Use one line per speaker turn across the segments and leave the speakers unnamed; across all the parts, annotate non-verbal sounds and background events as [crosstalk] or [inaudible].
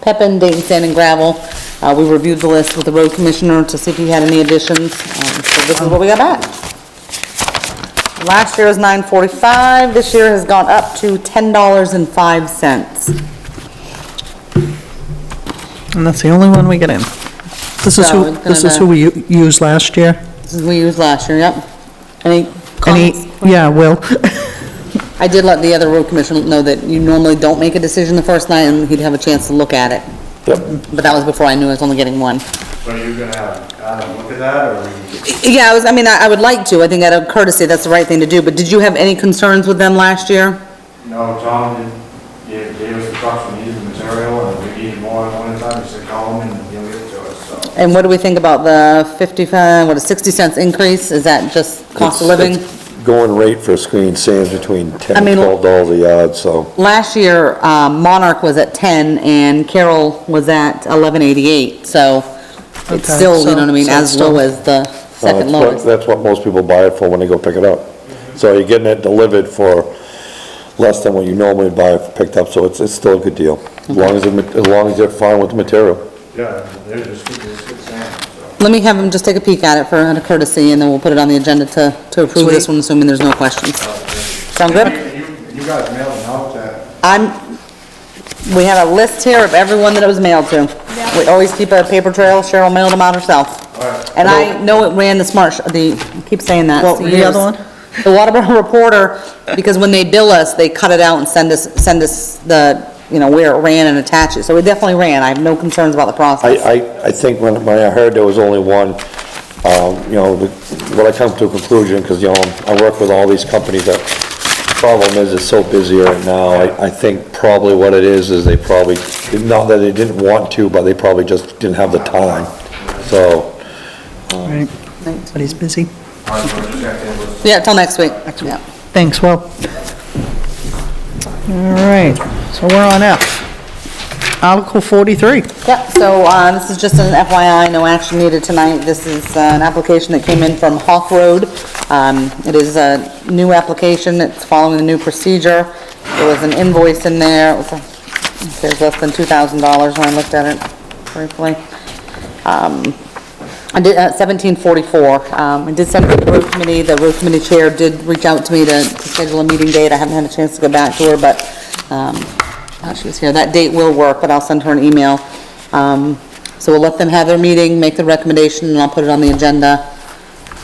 Pepin, Dayton Sand and Gravel. Uh, we reviewed the list with the road commissioner to see if he had any additions, um, so this is what we got back. Last year was nine forty-five, this year has gone up to ten dollars and five cents.
And that's the only one we get in. This is
So
who,
it's gonna
this is
be-
who we u- used last year.
This is what we used last year, yep. Any
Any,
comments?
yeah, Will,
I did let the other road commissioner know that you normally don't make a decision the first night and he'd have a chance to look at it.
Yep.
But that was before I knew I was only getting one.
So are you gonna have Adam look at that, or are you?
Yeah, I was, I mean, I I would like to, I think out of courtesy, that's the right thing to do, but did you have any concerns with them last year?
No, Tom did, gave, gave us the trucks, we needed the material, and if we needed more at one time, he said, call him and he'll get it to us, so.
And what do we think about the 55, what, a 60 cents increase? Is that just cost of
It's-
living?
it's Going rate for screen sand's between ten
I
and
mean-
twelve dollars a yard, so uh,
Last year, um, Monarch was at 10 and Carol was at 1188, so it's
Okay,
still, you
so-
know what I mean,
so
as
it's
low
still-
as the
uh,
second
that's what-
lowest. Mm-hmm.
that's what most people buy it for when they go pick it up. So you're getting it delivered for less than what you normally buy it picked up, so it's, it's still a good deal. As long as, the ma- as long as they're fine with the material.
Yeah, they're just keeping this good sand, so.
Let me have him just take a peek at it for out of courtesy and then we'll put it on the agenda to, to approve this
Sweet.
one, assuming there's no questions. Sound good?
You, you guys mailed them out uh, that,
I'm, we have a list here of everyone that it was mailed to. We always keep a paper trail, Cheryl mailed them out herself.
Alright.
And I know it ran the smart, sh- the, I keep saying that.
What,
for
the other
years.
one?
The Waterboro Reporter, because when they bill us, they cut it out and send us, send us the, you know, where it ran and attach it, so it definitely ran, I have no concerns about the
I,
process.
I, I think when, when I heard there was only one, um, you know, the- when I come to a conclusion, because, you know, I work with all these companies that, problem is, it's so busy right now, I, I think probably what it is, is they probably, not that they didn't want to, but they probably just didn't have the time, so,
Oh.
Right, but he's busy.
I was just checking with
Yeah, till next week. Yeah.
Thanks, Will. All right, so we're on F. Article 43.
Yep, so, uh, this is just an FYI, no action needed tonight. This is uh, an application that came in from Hawk Road. Um, it is a new application, it's following the new procedure. There was an invoice in there, it was, uh, it was less than two thousand dollars when I looked at it briefly. Um, I did, uh, 1744, um, I did send it to the road committee, the road committee chair did reach out to me to to schedule a meeting date, I haven't had a chance to go back to her, but, um, uh, she was here, that date will work, but I'll send her an email. Um, so we'll let them have their meeting, make the recommendation, and I'll put it on the agenda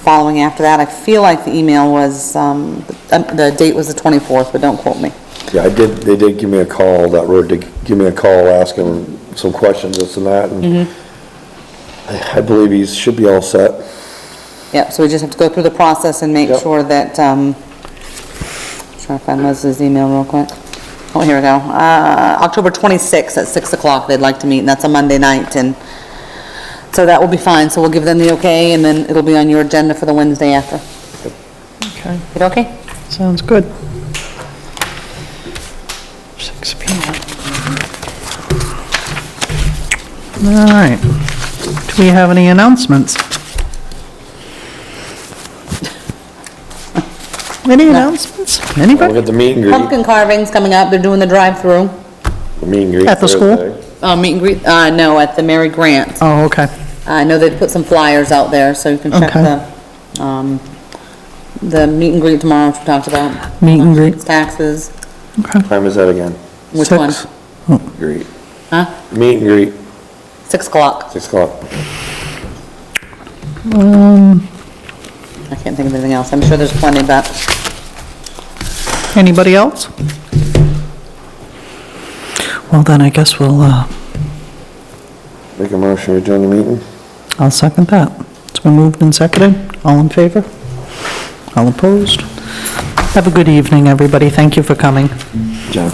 following after that. I feel like the email was, um, the um, the date was the 24th, but don't quote me.
yeah, I did, they did give me a call, that road did give me a call asking some questions, this and that, and
Mm-hmm.
I I believe he should be all set.
Yep, so we just have to go through the process and make
Yep.
sure that, um, trying to find Leslie's email real quick. Oh, here we go. Uh, October 26th at 6 o'clock, they'd like to meet, and that's a Monday night, and so that will be fine. So we'll give them the okay, and then it'll be on your agenda for the Wednesday after.
Okay,
It okay?
sounds good. 6 PM. All right. Do we have any announcements? [laughs] Any announcements?
We'll
Anybody?
get the meet and greet,
Pumpkin carving's coming up, they're doing the drive-through.
the meet and greet.
At the school?
Thursday.
Uh, meet and greet, uh, no, at the Mary Grant.
Oh, okay.
I know they've put some flyers out there, so you can check
Okay.
the, um, the meet and greet tomorrow, which we talked about. Um,
Meet and greet.
Taxes.
Okay.
Time is that again?
Which
Six.
one?
Great.
Huh?
Meet and greet,
Six o'clock.
six o'clock.
um,
I can't think of anything else. I'm sure there's plenty, but
Anybody else? Well, then I guess we'll, uh,
Make a motion, we adjourn the meeting?
I'll second that. It's been moved and seconded. All in favor? All opposed? Have a good evening, everybody. Thank you for coming.
John.